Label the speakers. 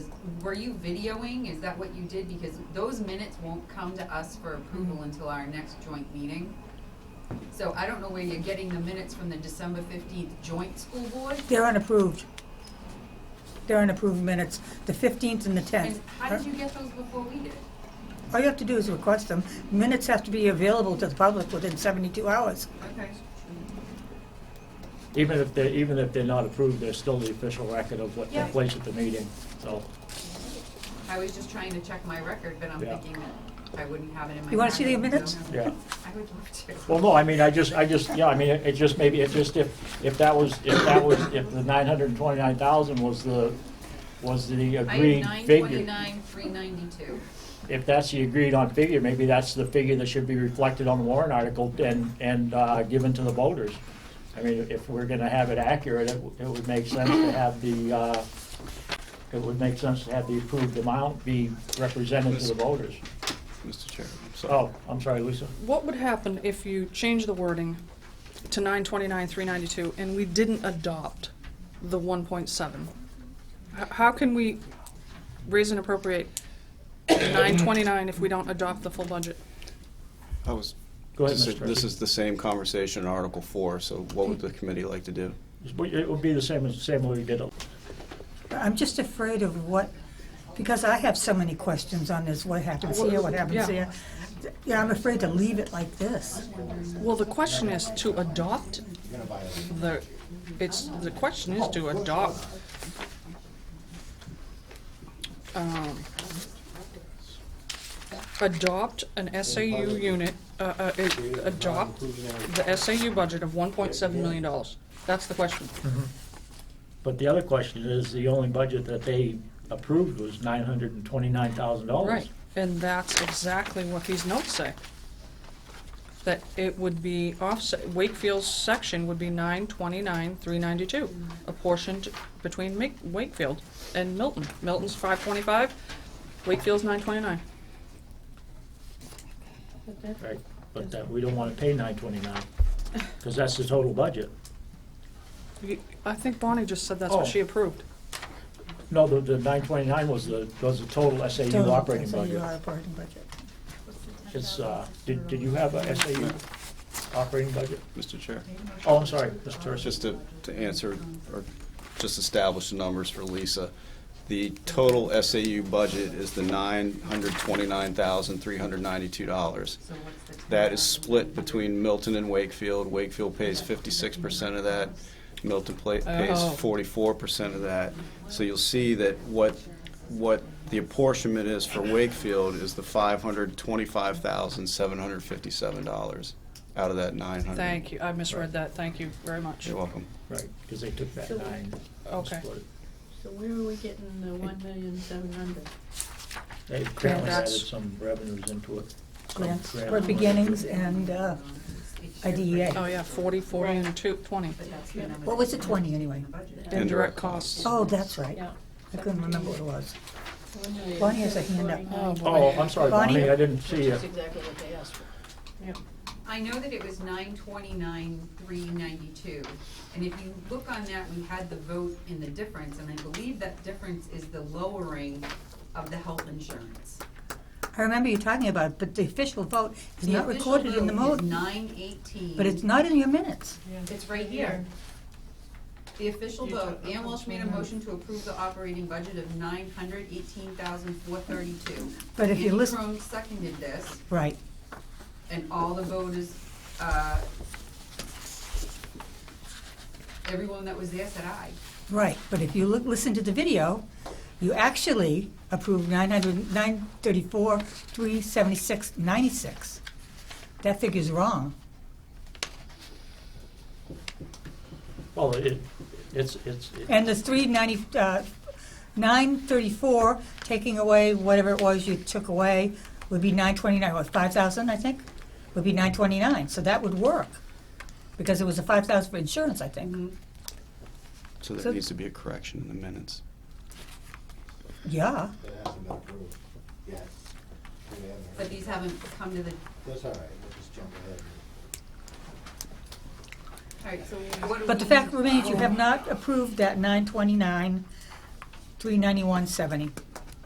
Speaker 1: were you videoing? Is that what you did? Because those minutes won't come to us for
Speaker 2: Mm-hmm.
Speaker 1: approval until our next joint meeting. So I don't know where you're getting the minutes from the December fifteenth joint school board.
Speaker 2: They're unapproved. They're unapproved minutes, the 15th and the 10th.
Speaker 1: And how did you get those before we did?
Speaker 2: All you have to do is request them. Minutes have to be available to the public within 72 hours.
Speaker 1: Okay.
Speaker 3: Even if they're, even if they're not approved, they're still the official record of what
Speaker 1: Yeah.
Speaker 3: took place at the meeting, so.
Speaker 1: I was just trying to check my record, but I'm
Speaker 3: Yeah.
Speaker 1: thinking that I wouldn't have it in my.
Speaker 2: You wanna see the
Speaker 1: pocket, so-
Speaker 2: minutes?
Speaker 3: Yeah.
Speaker 1: I would love to.
Speaker 3: Well, no, I mean, I just, I just, yeah, I mean, it it just maybe, it just if, if that was, if that was, if the nine hundred and twenty-nine thousand was the, was the
Speaker 1: I have
Speaker 3: agreed
Speaker 1: nine
Speaker 3: figure.
Speaker 1: twenty-nine, three ninety-two.
Speaker 3: If that's the agreed on figure, maybe that's the figure that should be reflected on the warrant article and, and, uh, given to the voters. I mean, if we're gonna have it accurate, it, w- it would make sense to have the, uh, it would make sense to have the approved amount be represented to the voters.
Speaker 4: Mr. Chair, I'm sorry.
Speaker 3: Oh, I'm sorry, Lisa.
Speaker 5: What would happen if you change the wording to nine twenty-nine, three ninety-two, and we didn't adopt the one point seven? How can we raise and appropriate nine twenty-nine if we don't adopt the full budget?
Speaker 4: I was,
Speaker 3: Oh, Go ahead,
Speaker 4: this
Speaker 3: Mr.
Speaker 4: is- this is the same conversation in Article Four, so what would the committee like to do?
Speaker 3: It would be the same as, same way we did it.
Speaker 2: I'm just afraid of what, because I have so many questions on this, what happens here, what happens
Speaker 5: Yeah.
Speaker 2: here. Yeah, I'm afraid to leave it like this.
Speaker 5: Well, the question is to adopt the, it's, the question is to adopt. um, Adopt an SAU unit, uh, uh, a- adopt the SAU budget of one point seven million dollars. That's the question.
Speaker 3: But the other question is, the only budget that they approved was nine hundred and twenty-nine thousand dollars.
Speaker 5: Right, and that's exactly what these notes say. That it would be offset, Wakefield's section would be nine twenty-nine, three ninety-two, apportioned between Ma- Wakefield and Milton. Milton's five twenty-five, Wakefield's nine twenty-nine.
Speaker 3: Right, but that, we don't wanna pay nine twenty-nine, cause that's the total budget.
Speaker 5: I think Bonnie just said that's what
Speaker 3: Oh.
Speaker 5: she approved.
Speaker 3: No, the, the nine twenty-nine was the, was the total SAU
Speaker 2: Total
Speaker 3: operating
Speaker 2: SAU
Speaker 3: budget.
Speaker 2: operating budget.
Speaker 3: It's, uh, did, did you have a SAU operating budget?
Speaker 4: Mr. Chair,
Speaker 3: Oh, I'm sorry, Mr. Tursi.
Speaker 4: just to, to answer, or just establish the numbers for Lisa. The total SAU budget is the nine hundred twenty-nine thousand, three hundred ninety-two dollars.
Speaker 1: So what's the?
Speaker 4: That is split between Milton and Wakefield. Wakefield pays fifty-six percent of that. Milton pla- pays
Speaker 5: Oh.
Speaker 4: forty-four percent of that. So you'll see that what, what the apportionment is for Wakefield is the five hundred twenty-five thousand, seven hundred fifty-seven dollars out of that nine hundred.
Speaker 5: Thank you, I misread that, thank you very much.
Speaker 4: You're welcome.
Speaker 3: Right, cause they took that
Speaker 6: So-
Speaker 3: nine. and
Speaker 5: Okay.
Speaker 3: split it.
Speaker 6: So where are we getting the one million seven hundred?
Speaker 3: They apparently added
Speaker 5: that's-
Speaker 3: some revenues into it. some
Speaker 2: Grants
Speaker 3: grant
Speaker 2: for
Speaker 3: money.
Speaker 2: beginnings and uh, IDEA.
Speaker 5: Oh, yeah, forty, forty, and two, twenty.
Speaker 1: But that's the number
Speaker 2: E What was it, 20 anyway?
Speaker 5: Indirect costs.
Speaker 2: Oh, that's right.
Speaker 6: Yeah.
Speaker 2: I couldn't remember what it was.
Speaker 6: One million
Speaker 2: Bonnie has a
Speaker 6: seven
Speaker 2: hand up.
Speaker 6: forty-nine.
Speaker 5: Oh, boy.
Speaker 3: Oh, I'm uh, sorry,
Speaker 2: Bonnie?
Speaker 3: Bonnie, I didn't see you.
Speaker 6: Which is exactly what they asked for.
Speaker 1: I know that it was nine twenty-nine, three ninety-two, and if you look on that, we had the vote in the difference, and I believe that difference is the lowering of the health insurance.
Speaker 2: I remember you talking about it, but the official vote is not recorded in the
Speaker 1: mode.
Speaker 2: vote,
Speaker 1: Nine eighteen.
Speaker 2: but it's not in your minutes.
Speaker 1: It's right here. The official vote, Ann Walsh made a motion to approve the operating budget of nine hundred eighteen thousand four thirty-two.
Speaker 2: But if you listen-
Speaker 1: Andy Crone seconded this,
Speaker 2: Right.
Speaker 1: and all the voters, uh, everyone that was there said aye.
Speaker 2: Right, but if you look, listen to the video, you actually approved nine hundred, nine thirty-four, three seventy-six, ninety-six. That figure's wrong.
Speaker 3: Well, Oh, it, it's, it's, it-
Speaker 2: And the three ninety, uh, nine thirty-four, taking away whatever it was you took away, would be nine twenty-nine, or five thousand, I think, would be nine twenty-nine, so that would work. Because it was a five thousand for insurance, I think.
Speaker 4: So
Speaker 2: So-
Speaker 4: there needs to be a correction in the minutes.
Speaker 2: Yeah,
Speaker 7: It hasn't been approved yet. We haven't heard.
Speaker 1: But these haven't come to the,
Speaker 7: That's all right, we'll just jump ahead.
Speaker 1: alright, so what do we?
Speaker 2: but the fact remains, you have not approved that nine twenty-nine, three ninety-one, seventy.